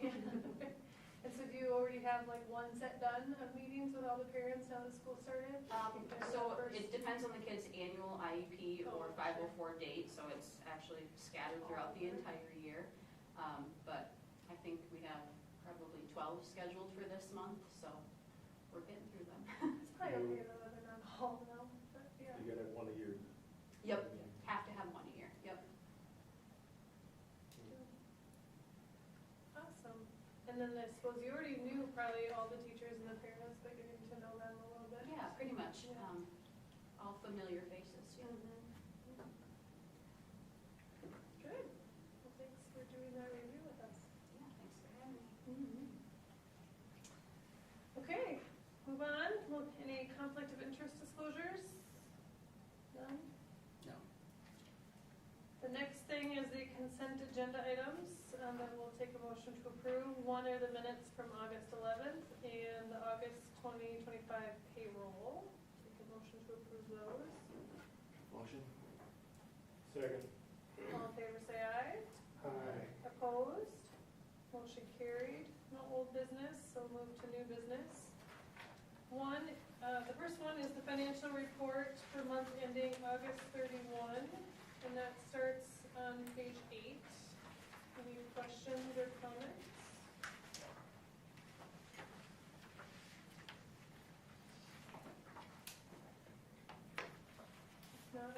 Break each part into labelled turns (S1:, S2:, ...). S1: And so do you already have like one set done of meetings with all the parents now that school started?
S2: Um,
S1: Their
S2: So
S1: first-
S2: it depends on the kid's annual IEP
S1: Oh,
S2: or 504 date, so it's actually scattered throughout the entire year. Um, But I think we have probably 12 scheduled for this month, so we're getting through them.
S1: It's probably okay though that they're not all now, but yeah.
S3: You gotta have one a year.
S2: Yep, have to have one a year, yep.
S1: Awesome. And then I suppose you already knew probably all the teachers and the parents, but getting to know them a little bit.
S2: Yeah, pretty much,
S1: Yeah.
S2: um, all familiar faces, yeah.
S1: Mm-hmm. Good. Well, thanks for doing that review with us.
S2: Yeah, thanks for having me.
S1: Mm-hmm. Okay, move on. Well, Any conflict of interest disclosures? None?
S4: No.
S1: The next thing is the consent agenda items, and then we'll take a motion to approve. One are the minutes from August 11th and the August 2025 payroll. Take a motion to approve those.
S4: Motion?
S3: Second.
S1: All in favor, say aye.
S3: Aye.
S1: Opposed? Motion carried. No old business, so move to new business. One, uh, the first one is the financial report for month ending August 31, and that starts on page eight. Any questions or comments? If not,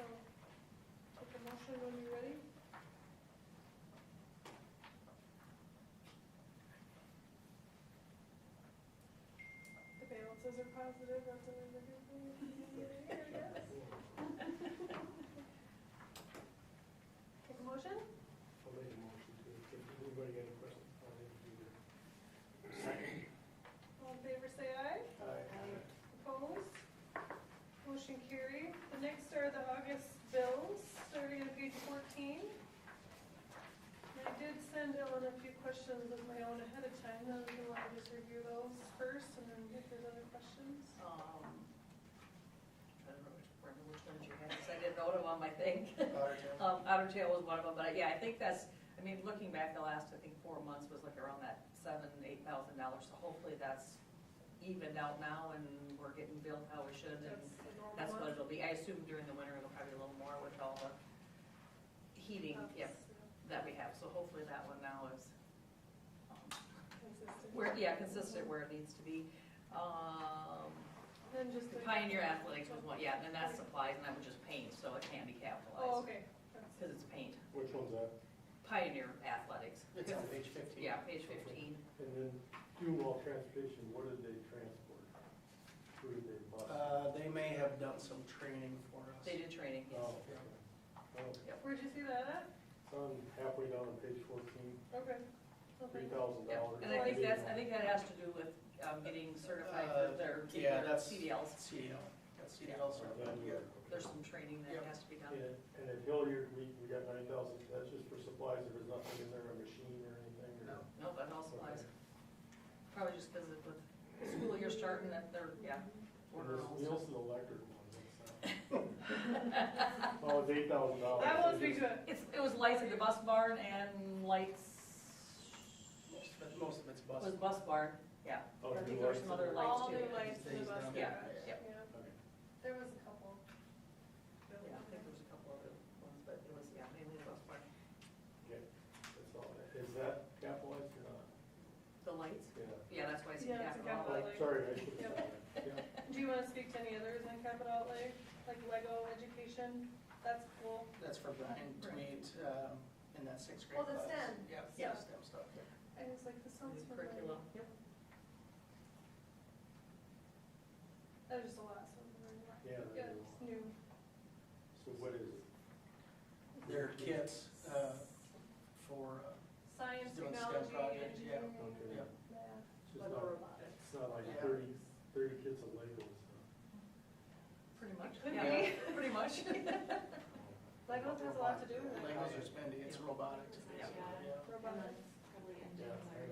S1: I'll take a motion when you're ready. The balances are positive, that's another good thing. I guess. Take a motion?
S3: I'll make a motion to, if anybody got any questions, I'll
S1: All in favor, say aye.
S3: have to do that.
S1: Opposed? Motion carried. The next are the August bills, starting on page 14. And I did send Ellen a few questions of my own ahead of time, though, if you want to just review those first, and then if there's other questions.
S5: Um, I don't remember which- remember which ones you had, because I didn't note them on my thing.
S3: Aye.
S5: Um, Otter Tail was one of them, but yeah, I think that's, I mean, looking back, the last, I think, four months was like around that seven, eight thousand dollars, so hopefully that's evened out now and we're getting billed how we should and
S1: That's the normal
S5: that's what
S1: one.
S5: it'll be. I assume during the winter it'll probably be a little more with all the heating, yep,
S1: That's,
S5: that we have, so hopefully that one now is, um,
S1: uh, Consistent.
S5: where, yeah, consistent where it needs to be. Um,
S1: Then just.
S5: the Pioneer Athletics was one, yeah, and then that's supplies, and that was just paint, so it can't be
S1: Oh,
S5: capitalized,
S1: okay. That's-
S5: because it's paint.
S3: Which one's that?
S5: Pioneer Athletics.
S4: It's on page 15.
S5: Yeah, page 15.
S3: And then juvenile transportation, what did they transport? Who did they buy?
S4: Uh, They may have done some training for us.
S5: They did training, yes.
S3: Oh, okay. Oh,
S1: Where'd you see that at?
S3: It's on halfway down on page fourteen,
S1: Okay.
S3: three thousand
S5: Yep,
S3: dollars.
S5: And I think that's, I think that has to do with um, getting certified for their,
S4: Uh, yeah,
S5: their
S4: that's-
S5: CDLs.
S4: CDL, that's CDL certified, yeah.
S5: There's some training that
S4: Yep.
S5: has to be done.
S3: And and at Hilliard, we, we got nine thousand, that's just for supplies, there was nothing in there, a machine or anything? or-
S4: No.
S5: No, but all supplies. Probably just because of the school year starting, that they're, yeah,
S3: And
S5: ordering
S3: this
S5: all sorts.
S3: Nielsen electric one, that's not. Oh, it's eight thousand dollars.
S1: That won't be good.
S5: It's, it was lights at the bus barn and lights,
S4: Most of it- Most of
S5: was
S4: it's bus.
S5: bus barn, yeah.
S3: Oh,
S5: I think
S3: new
S5: there were
S3: lights
S5: some
S3: in
S5: other
S3: there.
S5: lights
S1: All
S5: too.
S1: new lights in the bus garage.
S5: Yeah, yeah.
S3: Okay.
S1: There was a couple.
S5: Yeah, I think there's a couple other ones, but it was, yeah, mainly the bus barn.
S3: Yeah, that's all. Is that capitalized or not?
S5: The lights?
S3: Yeah.
S5: Yeah, that's why I said
S1: Yeah, it's a
S5: capital.
S1: capital.
S5: outlay.
S3: Oh, Sorry, I should have that. Yeah.
S1: Do you want to speak to any others in capital outlay, like Lego education? That's cool.
S4: That's for Brian to meet um, in that sixth grade
S1: Oh, the
S4: class.
S1: STEM.
S4: Yeah,
S1: Yeah.
S4: the STEM stuff.
S1: I was like, this sounds
S5: New
S1: familiar.
S5: Curriculum, yep.
S1: That was just a lot, so I'm learning a lot.
S3: Yeah, there you go.
S1: it's new.
S3: So what is it?
S4: There are kits uh, for, uh,
S1: Science,
S4: Doing STEM
S1: technology,
S4: projects, yeah.
S1: engineering,
S3: Okay.
S4: yeah,
S1: math.
S3: It's just
S1: Lego
S3: not,
S1: robotics.
S3: it's not like
S4: Yeah.
S3: thirty, thirty kids of Legos.
S5: Pretty much.
S1: Could
S5: Yeah, Pretty much.
S3: huh?
S1: Lego has a lot to do with it.
S4: uh, Legos are spendy, it's robotics. basically,
S2: Yeah.
S4: yeah.
S1: Robotics.
S2: Probably
S3: Yeah,
S2: engines
S3: I
S2: or